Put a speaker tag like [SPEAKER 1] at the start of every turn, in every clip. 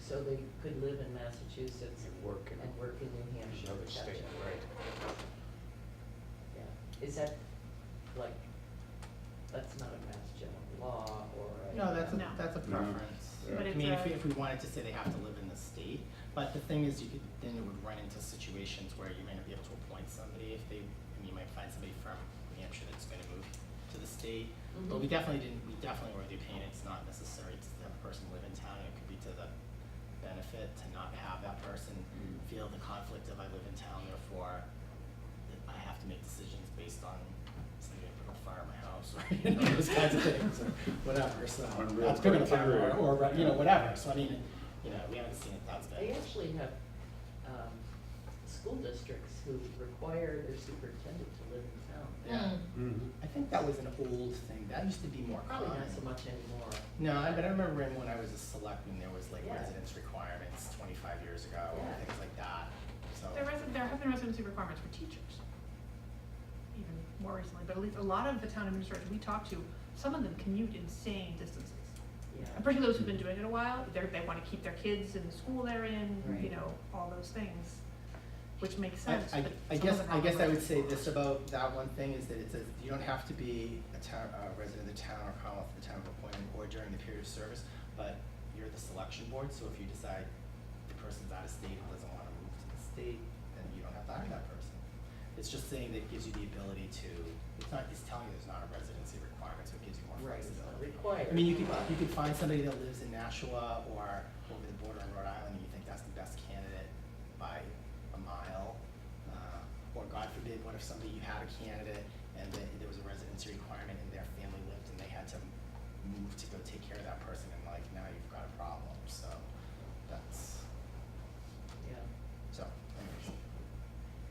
[SPEAKER 1] so they could live in Massachusetts
[SPEAKER 2] And work in-
[SPEAKER 1] and work in New Hampshire.
[SPEAKER 2] Another
[SPEAKER 1] Gotcha.
[SPEAKER 2] state, right?
[SPEAKER 1] Yeah, is that like, that's not a Mass General law or a. um,
[SPEAKER 3] No, that's a,
[SPEAKER 4] No.
[SPEAKER 3] that's a
[SPEAKER 5] No.
[SPEAKER 3] preference.
[SPEAKER 5] Yeah.
[SPEAKER 4] But
[SPEAKER 3] I
[SPEAKER 4] it's
[SPEAKER 3] mean, if,
[SPEAKER 4] a-
[SPEAKER 3] if we wanted to say they have to live in the state, but the thing is, you could, then you would run into situations where you may not be able to appoint somebody if they, and you might find somebody from New Hampshire that's gonna move to the state.
[SPEAKER 4] Mm-hmm.
[SPEAKER 3] But we
[SPEAKER 1] Mhm.
[SPEAKER 3] definitely didn't, we definitely were of the opinion it's not necessary to have a person live in town, and it could be to the benefit to not have that person
[SPEAKER 5] Mm.
[SPEAKER 3] feel the conflict of I live in town, therefore that I have to make decisions based on somebody that put a fire in my house, or, you know, those kinds of things, or whatever, so.
[SPEAKER 5] Unreal
[SPEAKER 3] That's picking a fire,
[SPEAKER 5] criteria.
[SPEAKER 3] or, or, you know, whatever, so I mean, you know, we haven't seen it that bad.
[SPEAKER 1] They actually have, um, school districts who require their superintendent to live in town.
[SPEAKER 3] Yeah.
[SPEAKER 5] Mhm.
[SPEAKER 3] I think that was an old thing, that used to be more common.
[SPEAKER 1] Probably not so much anymore.
[SPEAKER 3] No, I, but I remember when I was a selectman, there was like
[SPEAKER 1] Yeah.
[SPEAKER 3] residence requirements twenty-five years ago,
[SPEAKER 1] Yeah.
[SPEAKER 3] and things like that, so.
[SPEAKER 4] There resi- there have been residency requirements for teachers, even more recently, but at least a lot of the town administrators we talk to, some of them commute insane distances.
[SPEAKER 1] Yeah.
[SPEAKER 4] And particularly those who've been doing it a while, they're, they wanna keep their kids in the school they're in, you
[SPEAKER 3] Right.
[SPEAKER 4] know, all those things, which makes
[SPEAKER 3] I,
[SPEAKER 4] sense,
[SPEAKER 3] I,
[SPEAKER 4] but
[SPEAKER 3] I
[SPEAKER 4] some of
[SPEAKER 3] guess,
[SPEAKER 4] them
[SPEAKER 3] I
[SPEAKER 4] aren't
[SPEAKER 3] guess I would
[SPEAKER 4] residents.
[SPEAKER 3] say this about that one thing is that it says, you don't have to be a town, a resident of the town or Commonwealth of the town of appointment or during the period of service, but you're the selection board, so if you decide the person's out of state and doesn't wanna move to the state, then you don't have to hire that person. It's just saying that it gives you the ability to, it's not, it's telling you there's not a residency requirement, so it gives you more
[SPEAKER 1] Right, it's not
[SPEAKER 3] flexibility.
[SPEAKER 1] required.
[SPEAKER 3] I mean, you could,
[SPEAKER 1] but-
[SPEAKER 3] you could find somebody that lives in Nashua or over the border in Rhode Island, and you think that's the best candidate by a mile. Uh, Or God forbid, what if somebody, you had a candidate and then there was a residency requirement and their family lived and they had to move to go take care of that person and like, now you've got a problem, so that's,
[SPEAKER 1] Yeah.
[SPEAKER 3] so, anyways.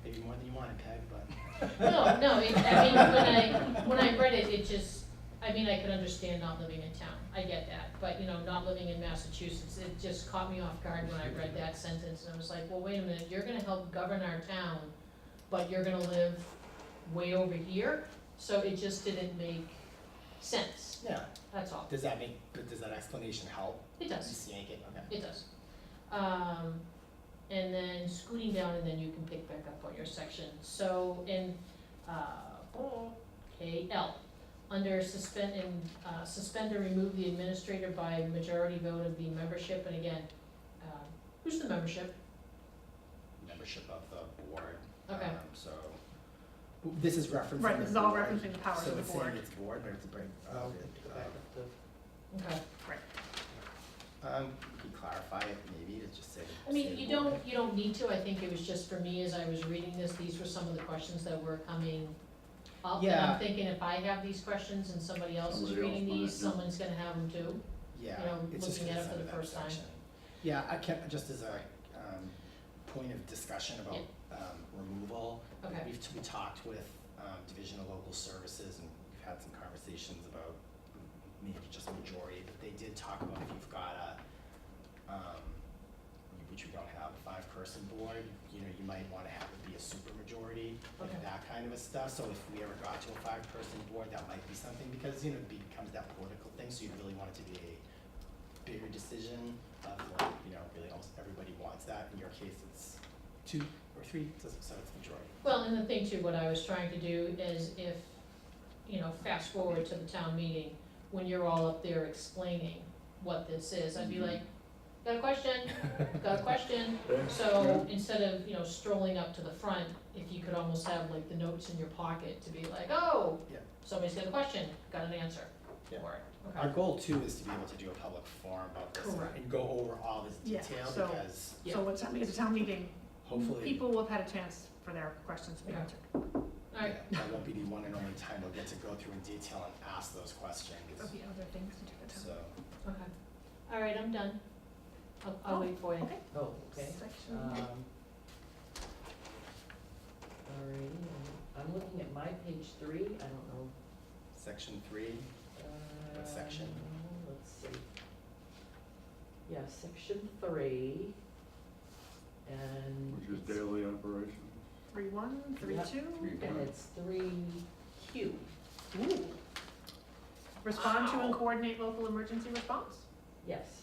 [SPEAKER 3] Maybe more than you wanted, Peg, but.
[SPEAKER 6] No, no, it, I mean, when I, when I read it, it just, I mean, I could understand not living in town, I get that, but, you know, not living in Massachusetts, it just caught me off guard when I read that sentence, and I was like, well, wait a minute, you're gonna help govern our town, but you're gonna live way over here, so it just didn't make sense,
[SPEAKER 3] Yeah,
[SPEAKER 6] that's all,
[SPEAKER 3] does that make, but does that explanation help?
[SPEAKER 6] it does.
[SPEAKER 3] Just yank it, okay.
[SPEAKER 6] It does. Um, and then scooting down and then you can pick back up on your section. So in, uh, okay, L, under suspend and, uh, suspend or remove the administrator by majority vote of the membership, and again, um, who's the membership?
[SPEAKER 3] membership of the board.
[SPEAKER 6] Okay.
[SPEAKER 3] Um, so, w- this is referencing.
[SPEAKER 4] Right,
[SPEAKER 3] the
[SPEAKER 4] this is all
[SPEAKER 3] board.
[SPEAKER 4] referencing the powers of the
[SPEAKER 3] So it's saying
[SPEAKER 4] board.
[SPEAKER 3] it's board, but it's a break, uh,
[SPEAKER 1] Go back
[SPEAKER 3] it,
[SPEAKER 1] up to-
[SPEAKER 6] Okay.
[SPEAKER 3] uh, um, you could clarify it maybe to just say.
[SPEAKER 6] I mean,
[SPEAKER 3] say
[SPEAKER 6] you
[SPEAKER 3] board.
[SPEAKER 6] don't, you don't need to, I think it was just for me, as I was reading this, these were some of the questions that were coming up. And
[SPEAKER 3] Yeah.
[SPEAKER 6] I'm thinking if I have these questions and somebody else is
[SPEAKER 5] Somebody else
[SPEAKER 6] reading
[SPEAKER 5] might,
[SPEAKER 6] these,
[SPEAKER 5] yeah.
[SPEAKER 6] someone's gonna have them too.
[SPEAKER 3] Yeah,
[SPEAKER 6] you know,
[SPEAKER 3] it's just
[SPEAKER 6] looking at it
[SPEAKER 3] because
[SPEAKER 6] for
[SPEAKER 3] under
[SPEAKER 6] the
[SPEAKER 3] that
[SPEAKER 6] first time.
[SPEAKER 3] section. Yeah, I kept, just as a, um, point of discussion about, um, removal.
[SPEAKER 6] Okay.
[SPEAKER 3] We've, we talked with, um, Division of Local Services and we've had some conversations about maybe just majority, but they did talk about if you've got a, um, which we don't have, a five-person board, you know, you might wanna have it be a super majority
[SPEAKER 6] Okay.
[SPEAKER 3] and that kind of a stuff, so if we ever got to a five-person board, that might be something, because, you know, it becomes that political thing, so you really want it to be a bigger decision of like, you know, really almost everybody wants that, in your case, it's two or three, so so it's majority.
[SPEAKER 6] Well, and the thing too, what I was trying to do is if, you know, fast forward to the town meeting, when you're all up there explaining what this is, I'd
[SPEAKER 3] Mm-hmm.
[SPEAKER 6] be like, got a question, got a question. So instead of, you know, strolling up to the front, if you could almost have like the notes in your pocket to be like, oh,
[SPEAKER 3] Yeah.
[SPEAKER 6] somebody's got a question, got an answer
[SPEAKER 3] Yeah.
[SPEAKER 6] for it, okay?
[SPEAKER 3] Our goal too is to be able to do a public forum about this and-
[SPEAKER 6] Correct.
[SPEAKER 3] and go over all this
[SPEAKER 4] Yeah,
[SPEAKER 3] detail,
[SPEAKER 4] so-
[SPEAKER 3] because
[SPEAKER 4] So what's happening at the town meeting,
[SPEAKER 3] hopefully.
[SPEAKER 4] people will have had a chance for their questions to be
[SPEAKER 6] Yeah.
[SPEAKER 4] answered.
[SPEAKER 6] All right,
[SPEAKER 3] yeah, That won't be the one and only time we'll get to go through in detail and ask those questions,
[SPEAKER 4] There'll be other things to do at town.
[SPEAKER 3] so.
[SPEAKER 6] okay, all right, I'm done. I'll, I'll
[SPEAKER 4] Oh,
[SPEAKER 6] wait for you.
[SPEAKER 4] Okay.
[SPEAKER 1] Oh, okay.
[SPEAKER 4] Section.
[SPEAKER 1] Um,
[SPEAKER 3] uh,
[SPEAKER 1] Alrighty, I'm- I'm looking at my page three, I don't know.
[SPEAKER 3] Section three,
[SPEAKER 1] What
[SPEAKER 3] section?
[SPEAKER 1] Let's see. Yeah, section three. And.
[SPEAKER 5] Which is
[SPEAKER 1] it's-
[SPEAKER 5] daily operations.
[SPEAKER 4] Three one, three
[SPEAKER 1] Yeah.
[SPEAKER 4] two.
[SPEAKER 5] Three
[SPEAKER 1] And it's three Q.
[SPEAKER 4] Ooh. Respond to and
[SPEAKER 1] Wow.
[SPEAKER 4] coordinate local emergency response.
[SPEAKER 1] Yes.